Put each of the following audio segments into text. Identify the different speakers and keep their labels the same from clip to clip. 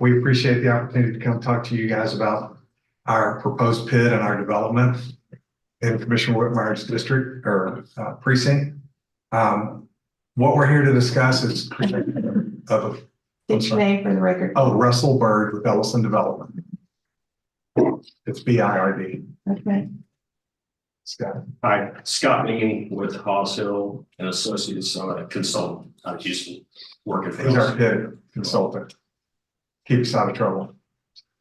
Speaker 1: We appreciate the opportunity to come talk to you guys about our proposed pit and our development in Commissioner Whitmire's district or uh, precinct. Um, what we're here to discuss is creation of,
Speaker 2: State your name for the record.
Speaker 1: oh, Russell Bird with Ellison Development. It's B I R D,
Speaker 2: Okay.
Speaker 1: Scott.
Speaker 3: Hi, Scott McGinney with Hawes Hill and Associates, I'm a consultant out of Houston, working for
Speaker 1: He's our
Speaker 3: us.
Speaker 1: pit consultant. Keeps us out of trouble.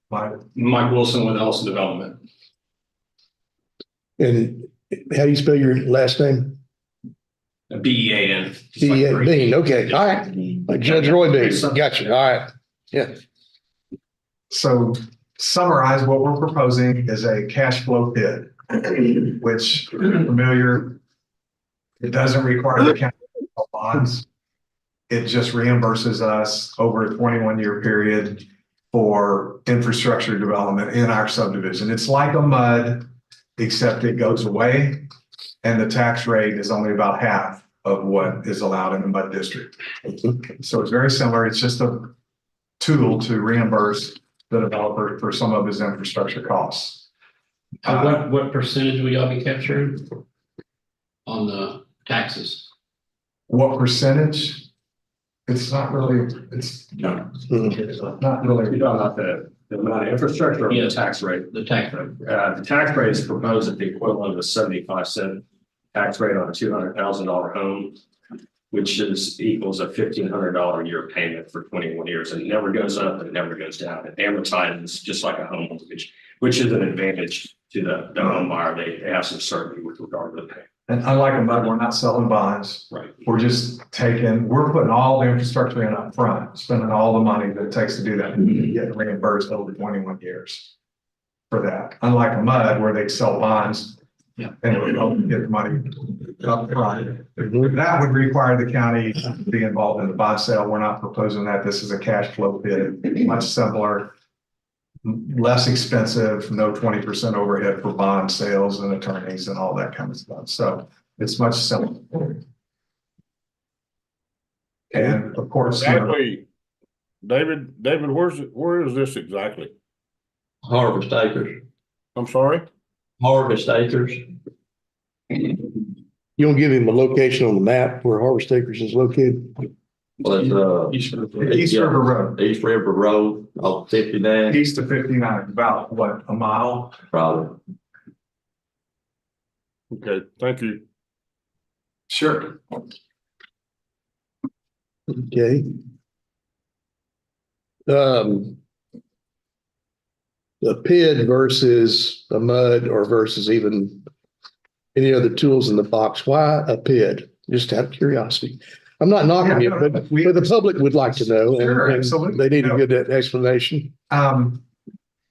Speaker 1: My,
Speaker 3: Mike Wilson with Ellison Development,
Speaker 4: And how do you spell your last name?
Speaker 3: B E A N. just like
Speaker 4: B A
Speaker 3: Green.
Speaker 4: Bean, okay, all right. Like Judge Roy Bean,
Speaker 3: Something.
Speaker 4: gotcha, all right.
Speaker 1: So summarize what we're proposing is a cash flow bid, which familiar. It doesn't require the county to sell bonds. It just reimburses us over a twenty-one year period for infrastructure development in our subdivision. It's like a mud, except it goes away. And the tax rate is only about half of what is allowed in the mud district. So it's very similar. It's just a tool to reimburse the developer for some of his infrastructure costs.
Speaker 5: Uh,
Speaker 1: Uh,
Speaker 5: What, what percentage will y'all be capturing? On the taxes?
Speaker 1: What percentage? It's not really, it's
Speaker 3: No.
Speaker 1: not really,
Speaker 3: You're talking about the, the amount of infrastructure or the
Speaker 5: Yes.
Speaker 3: tax rate?
Speaker 5: The tax rate?
Speaker 3: Uh, the tax rate is proposed at the equivalent of a seventy-five cent tax rate on a two hundred thousand dollar home, which is equals a fifteen hundred dollar a year payment for twenty-one years, and it never goes up and it never goes down. It amortizes just like a home mortgage, which is an advantage to the, the home buyer. They they have some certainty with regard to the payment.
Speaker 1: and unlike a mud, we're not selling bonds.
Speaker 3: Right.
Speaker 1: We're just taking, we're putting all the infrastructure in up front, spending all the money that it takes to do that,
Speaker 3: Mm-hmm.
Speaker 1: and getting reimbursed over twenty-one years for that. Unlike a mud where they sell bonds.
Speaker 5: Yeah.
Speaker 1: And we don't get the money up front. That would require the county to be involved in the bond sale. We're not proposing that. This is a cash flow bid, much simpler. Less expensive, no twenty percent overhead for bond sales and attorneys and all that kind of stuff. So it's much simpler. And of course, you know,
Speaker 6: Exactly. David, David, where's, it- where is this exactly?
Speaker 7: Harvest Acres,
Speaker 6: I'm sorry?
Speaker 7: Harvest Acres.
Speaker 4: You don't give him a location on the map where Harvest Acres is located?
Speaker 7: Well, it's, uh,
Speaker 5: Each for the-
Speaker 1: East River Road,
Speaker 7: East River Road, off fifty-nine,
Speaker 1: east of fifty-nine, about what, a mile?
Speaker 7: probably.
Speaker 6: Okay, thank you.
Speaker 1: Sure.
Speaker 4: Okay. Um. The PID versus a mud or versus even any other tools in the box, why a PID? Just out of curiosity. I'm not knocking you,
Speaker 1: Yeah, no,
Speaker 4: but,
Speaker 1: we-
Speaker 4: but the public would like to know. and-
Speaker 1: Sure,
Speaker 4: and
Speaker 1: absolutely.
Speaker 4: They need
Speaker 1: No.
Speaker 4: a good explanation.
Speaker 1: Um,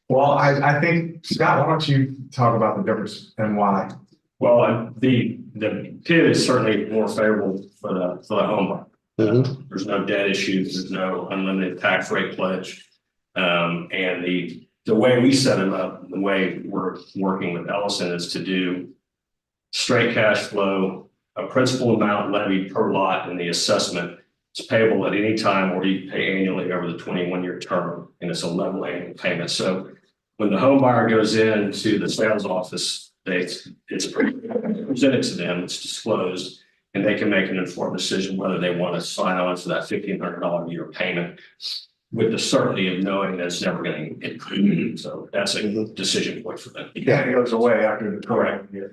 Speaker 1: well, I, I think, Scott, why don't you talk about the difference and why?
Speaker 3: Well, and the, the PID is certainly more favorable for the, for the homeowner.
Speaker 4: Mhm.
Speaker 3: Uh, There's no debt issues, there's no unlimited tax rate pledge. Um, and the, the way we set them up, the way we're working with Ellison is to do straight cash flow, a principal amount levied per lot in the assessment. It's payable at any time or you pay annually over the twenty-one year term, and it's a level annual payment. So when the home buyer goes into the sales office, they, it's presented to them, it's disclosed. And they can make an informed decision whether they want to sign on to that fifteen hundred dollar a year payment with the certainty of knowing that it's never going to increase. So that's
Speaker 4: Mm-hmm.
Speaker 3: a decision point for them.
Speaker 1: Yeah, it goes away after the
Speaker 3: Correct.
Speaker 1: current year.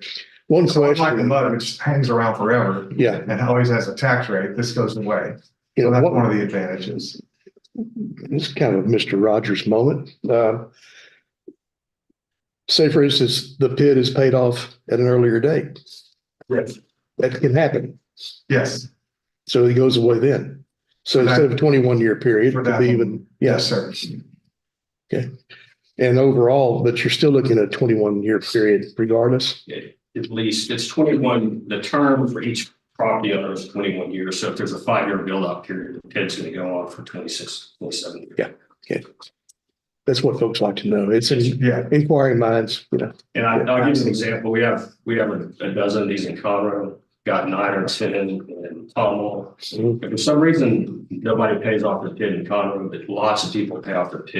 Speaker 4: One
Speaker 1: So unlike the
Speaker 4: question,
Speaker 1: mud, which hangs around forever
Speaker 4: yeah,
Speaker 1: and always has a tax rate, this goes away.
Speaker 4: you
Speaker 1: So
Speaker 4: know,
Speaker 1: that's
Speaker 4: what,
Speaker 1: one of the advantages.
Speaker 4: This is kind of Mr. Rogers moment. Uh, Say for instance, the pit is paid off at an earlier date.
Speaker 1: Yes.
Speaker 4: That can happen.
Speaker 1: Yes,
Speaker 4: So it goes away then. So instead of a twenty-one year period,
Speaker 1: For
Speaker 4: it
Speaker 1: that
Speaker 4: could be
Speaker 1: one.
Speaker 4: even,
Speaker 1: yes,
Speaker 4: yes.
Speaker 1: sir.
Speaker 4: And overall, but you're still looking at a twenty-one year period regardless.
Speaker 3: at least, it's twenty-one, the term for each property owner is twenty-one years, so if there's a five-year build-out period, the PID's gonna go on for 26, 27 years.
Speaker 4: Yeah. That's what folks like to know. It's in-
Speaker 1: Yeah,
Speaker 4: inquiring minds, you know.
Speaker 3: And I, I'll give you an example, we have, we have a a dozen of these in Conroe, got nine or ten in Tommel. For some reason, nobody pays off their PID in Conroe, but lots of people pay off their PID